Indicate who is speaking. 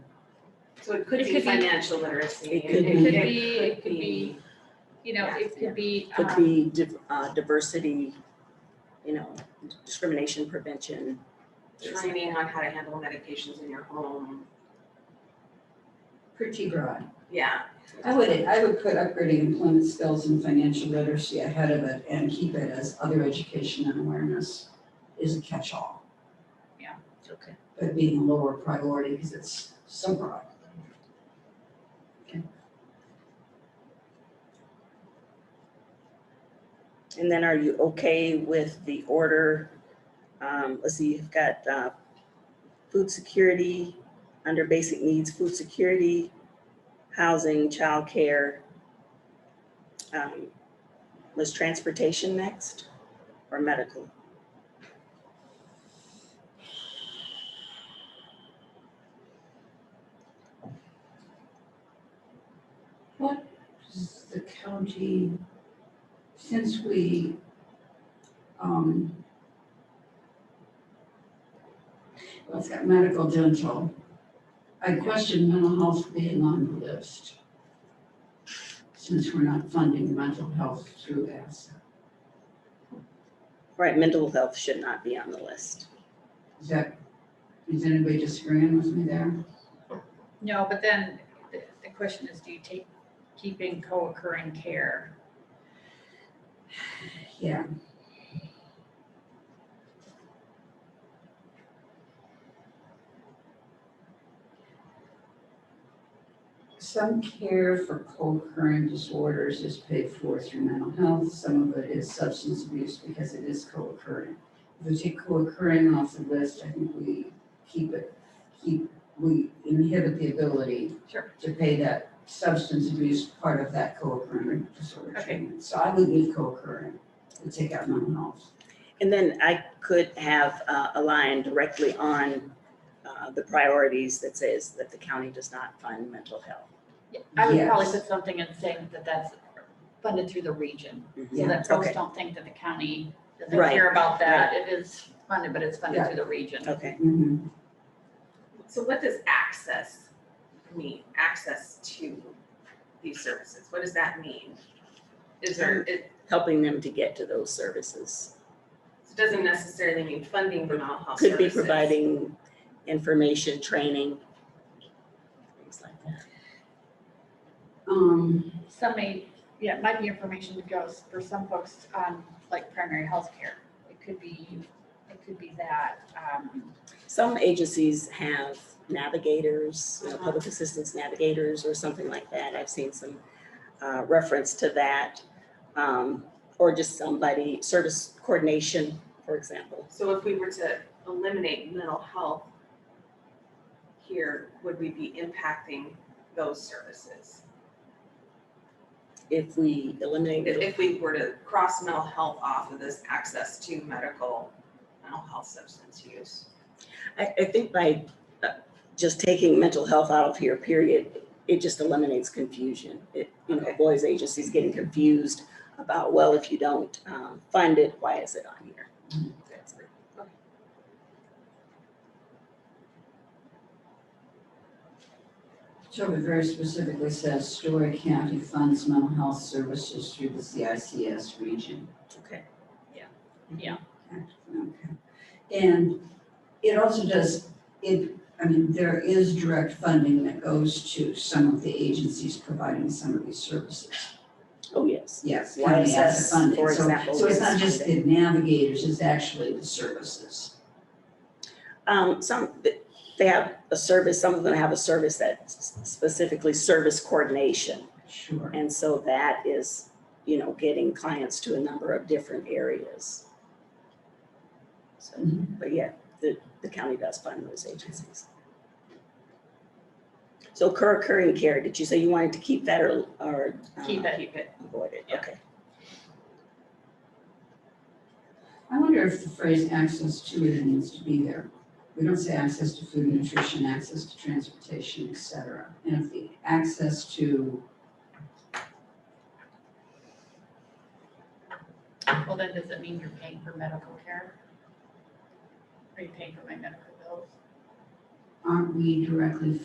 Speaker 1: So it could
Speaker 2: It
Speaker 1: be
Speaker 2: could be-
Speaker 1: financial literacy.
Speaker 3: It could
Speaker 2: It could be, it could be, you know,
Speaker 1: Yeah.
Speaker 2: it could be,
Speaker 3: could
Speaker 2: um,
Speaker 3: be div- uh, diversity, you know, discrimination prevention.
Speaker 1: Training on how to handle medications in your home.
Speaker 4: pretty broad.
Speaker 1: Yeah,
Speaker 4: I would, I would put upgrading employment skills and financial literacy ahead of it and keep it as other education and awareness is a catch-all,
Speaker 3: Okay.
Speaker 4: but being a lower priority because it's so broad.
Speaker 3: And then are you okay with the order? Um, let's see, you've got, uh, food security, under basic needs, food security, housing, childcare. Um, was transportation next or medical?
Speaker 4: What does the county, since we, um, well, it's got medical dental. I question mental health being on the list. Since we're not funding mental health through ASSA.
Speaker 3: Right, mental health should not be on the list.
Speaker 4: Is that, is anybody disagreeing with me there?
Speaker 2: no, but then the, the question is, do you take, keeping co-occurring care?
Speaker 4: Yeah. Some care for co-occurring disorders is paid for through mental health, some of it is substance abuse because it is co-occurring. If we take co-occurring off the list, I think we keep it, keep, we inhibit the ability
Speaker 2: Sure.
Speaker 4: to pay that substance abuse part of that co-occurring disorder
Speaker 2: Okay.
Speaker 4: treatment. So I would leave co-occurring and take out mental health.
Speaker 3: And then I could have uh, a line directly on uh, the priorities that says that the county does not fund mental health.
Speaker 2: Yeah, I would probably
Speaker 4: Yes.
Speaker 2: put something in saying that that's funded through the region, so
Speaker 4: Yeah,
Speaker 2: that folks
Speaker 3: okay.
Speaker 2: don't think that the county doesn't
Speaker 3: Mm-hmm. Right,
Speaker 2: care about that. It is funded, but it's funded
Speaker 4: Yeah.
Speaker 2: through the region.
Speaker 3: Okay,
Speaker 2: Mm-hmm.
Speaker 4: Mhm.
Speaker 1: so what does access mean, access to these services, what does that mean? Is
Speaker 3: Mm.
Speaker 1: there, it,
Speaker 3: helping them to get to those services.
Speaker 1: it doesn't necessarily mean funding for mental health
Speaker 3: Could be
Speaker 1: services.
Speaker 3: providing information, training, things like that.
Speaker 4: Um,
Speaker 2: Some may, yeah, it might be information that goes for some folks on like primary health care. It could be, it could be that, um,
Speaker 3: Some agencies have navigators, you know,
Speaker 1: Uh-huh.
Speaker 3: public assistance navigators or something like that. I've seen some uh, reference to that. um, Or just somebody, service coordination, for example.
Speaker 1: So if we were to eliminate mental health here, would we be impacting those services?
Speaker 3: If we eliminate
Speaker 1: If, if we were to cross mental health off of this access to medical, mental health substance use?
Speaker 3: I, I think by uh, just taking mental health out of here, period, it just eliminates confusion. It, you know,
Speaker 1: Okay.
Speaker 3: avoids agencies getting confused about, well, if you don't um, fund it, why is it on here? That's it.
Speaker 4: so it very specifically says Story County funds mental health services through the CICS region.
Speaker 3: Okay.
Speaker 4: Okay. And it also does, it, I mean, there is direct funding that goes to some of the agencies providing some of these services.
Speaker 3: Oh, yes.
Speaker 4: Yes, county has
Speaker 3: YSS,
Speaker 4: the funding.
Speaker 3: for
Speaker 4: So-
Speaker 3: example,
Speaker 4: So it's
Speaker 3: gets
Speaker 4: not just the
Speaker 3: funding.
Speaker 4: navigators, it's actually the services.
Speaker 3: Um, some, th- they have a service, some of them have a service that s- specifically service coordination.
Speaker 4: Sure.
Speaker 3: And so that is, you know, getting clients to a number of different areas. So,
Speaker 4: Mhm.
Speaker 3: but yeah, the, the county does fund those agencies. So co-occurring care, did you say you wanted to keep that or, or? uh,
Speaker 2: Keep it.
Speaker 1: Keep it.
Speaker 3: Avoid it,
Speaker 1: Yeah.
Speaker 3: okay.
Speaker 4: I wonder if the phrase access to it needs to be there. We don't say access to food and nutrition, access to transportation, et cetera. And if the access to,
Speaker 2: Well, then does it mean you're paying for medical care? Are you paying for my medical bills?
Speaker 4: aren't we directly